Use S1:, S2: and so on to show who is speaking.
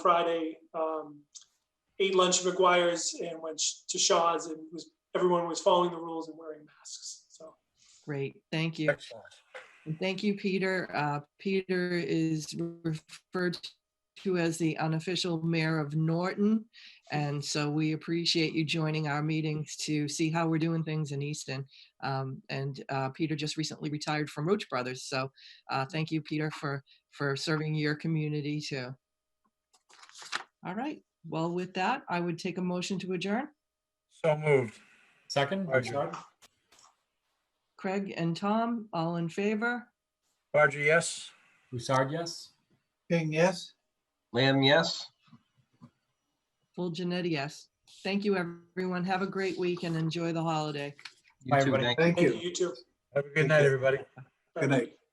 S1: Friday, um, ate lunch at McGuire's and went sh- to Shaw's and was, everyone was following the rules and wearing masks. So
S2: Great, thank you.
S3: Excellent.
S2: And Thank you, Peter. Uh, Peter is referred to as the unofficial mayor of Norton. And so we appreciate you joining our meetings to see how we're doing things in Easton. Um, And uh, Peter just recently retired from Roach Brothers. So uh, thank you, Peter, for, for serving your community too. All right, well, with that, I would take a motion to adjourn.
S3: So moved.
S4: Second?
S3: Roger.
S2: Craig and Tom, all in favor?
S3: Roger, yes?
S4: Broussard, yes?
S3: King, yes.
S5: Lamb, yes.
S2: Full Janetti, yes. Thank you, everyone. Have a great week and enjoy the holiday.
S5: You
S4: Bye,
S5: too.
S4: everybody.
S5: Thank you.
S1: thank
S3: Thank
S1: you,
S3: you.
S1: you too.
S3: Have a good night, everybody.
S1: Bye.
S6: Good night.